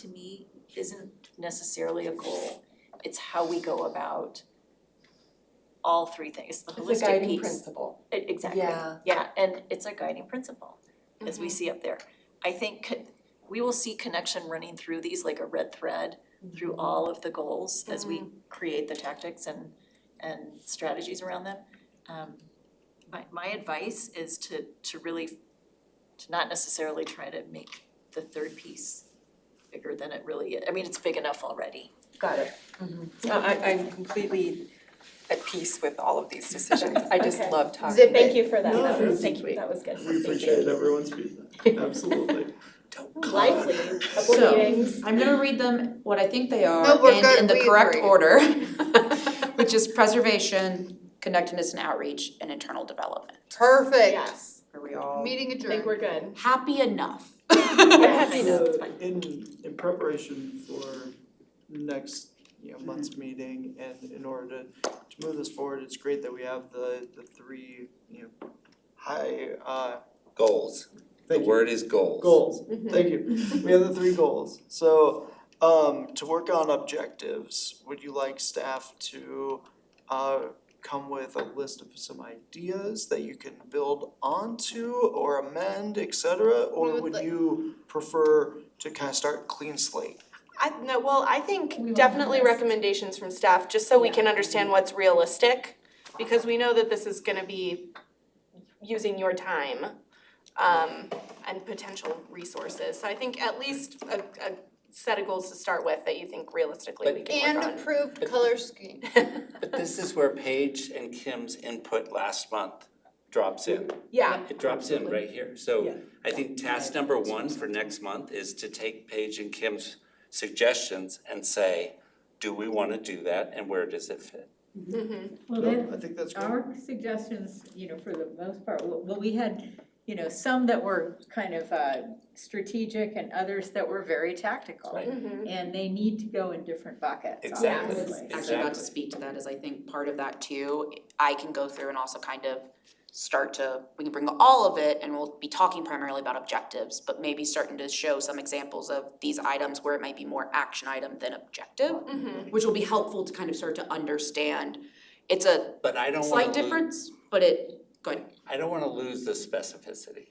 to me isn't necessarily a goal. It's how we go about all three things, the It's a holistic guiding piece. principle. E- Exactly, Yeah. yeah, and it's a guiding principle, as Mm-hmm. we see up there. I think co- we will see connection running through these like a red thread through all of the goals as we create the tactics and and strategies around them. Um my my advice is to to really to not necessarily try to make the third piece bigger than it really is. I mean, it's big enough already. Got it. I, I- I'm completely at peace with all of these decisions. I just Okay. love talking. Zip, thank you for that, No, that was, it's- thank you, that was good. Thank We you. appreciate everyone's feedback, absolutely. Lively, couple So- meetings. I'm gonna read them what I think they are No, we're and good. in the We correct agree. order. Which is preservation, connectedness and outreach, and internal development. Perfect. Yes, Are we all Meeting I think adjourned. we're good. happy enough? Yes. So It's fine. in in preparation for next, you know, month's meeting and in order to to move this forward, it's great that we have the the three, you know, high uh Goals. The thank you. word is goals. Goals, thank you. We have the three goals. So, um, to work on objectives, would you like staff to, uh, come with a list of some ideas that you can build onto or amend, et cetera? We Or would would like- you prefer to kind of start clean slate? I, no, well, I We think won't definitely have this. recommendations from staff, just so we Yeah. can understand what's realistic. Because we know that this is gonna be using your time, um, and potential resources. So I think at least a, a set of goals to start with that you think realistically we can And work on. approved color scheme. But this is where Paige and Kim's input last month drops in. Yeah. It drops in right here. So Yeah. I think task number one for next month is to take Paige and Kim's suggestions and say, do we want to do that and where does it fit? Well, No, then, I think that's great. our suggestions, you know, for the most part, well, well, we had, you know, some that were kind of uh strategic and others that were very tactical. Right. Mhm. Mm-hmm. And they need to go in different buckets, Exactly. obviously. actually about to Exactly. speak to that is I think part of that too, I can go through and also kind of start to, we can bring all of it and we'll be talking primarily about objectives, but maybe starting to show some examples of these items where it might be more action item than objective, Mm-hmm. which will be helpful to kind of start to understand. It's a But I don't want slight to lose, difference, but it, go ahead. I don't want to lose the specificity.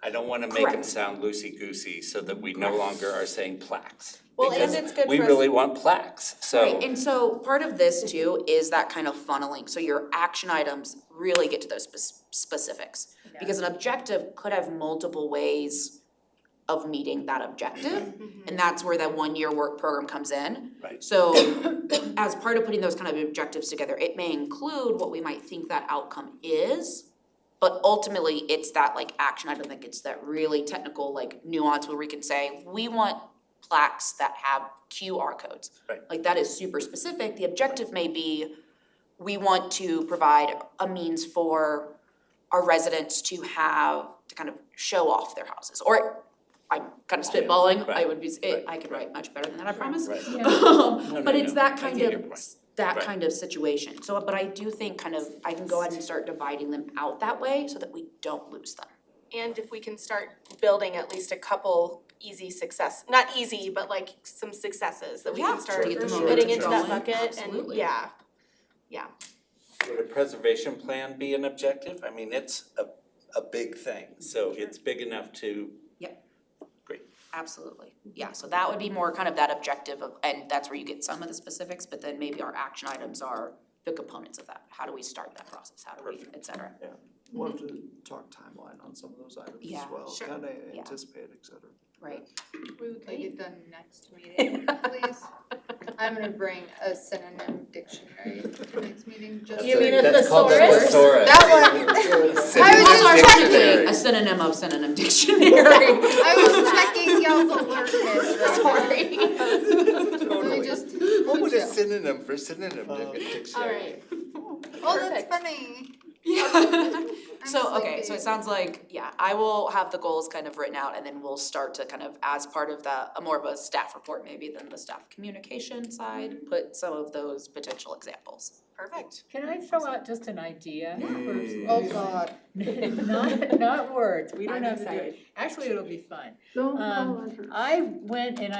I don't want to make them Correct. sound loosey-goosey so that we no longer are saying plaques. Well, and because it's good We for us- really want plaques, so. Right, and so part of this too is that kind of funneling, so your action items really get to those spec- specifics. Because an objective could have multiple ways of meeting that objective, and that's where that one-year work program comes in. Mm-hmm. Right. So as part of putting those kind of objectives together, it may include what we might think that outcome is, but ultimately, it's that like action item that gets that really technical like nuance where we can say, we want plaques that have QR codes. Right. Like that is super specific, the objective may be, we want to provide a means for our residents to have, to kind of show off their houses, or I'm kind of Yeah, spitballing, I right, would be, eh, right, I could write much better than that, I promise. Um, Right. no, But it's no, I that kind get your of, point. s- that Right. kind of situation, so, but I do think kind of, I can go ahead and start dividing them out that way so that we don't lose them. And if we can start building at least a couple easy success, not easy, but like some successes that we Yeah, can to start get the putting momentum into that going, bucket and, absolutely. yeah. Would a preservation plan be an objective? I mean, it's a, a big thing, so it's big enough to, Absolutely, yeah, so that would be more kind of that objective of, and that's where you get some of the specifics, but then maybe our action items are the components of that. How do we start that process, how do we, et cetera. We'll have to talk timeline on some of those items as Yeah, well, sure. kind of Yeah. anticipate, et cetera. Right. We would like it done next meeting, please. I'm gonna bring a synonym dictionary to next meeting, just. You mean a that's called a thesaurus? thesaurus. That one. I was Also, I'm just trying to checking. be A synonym of synonym dictionary, I was checking y'all's alertness right now. sorry. Let me Totally. just, What would a synonym for synonym Um, dictionary? oh, that's Perfect. funny. Yeah. I'm So, okay, so sleepy. it sounds like, yeah, I will have the goals kind of written out and then we'll start to kind of, as part of the, a more of a staff report maybe than the staff communication side, put some of those potential examples. Perfect. Can I throw out just an idea? Yeah. Oh, God. Not, not words, we don't I'm have to do it. excited. Actually, it'll be fun. Don't Um, I went and I.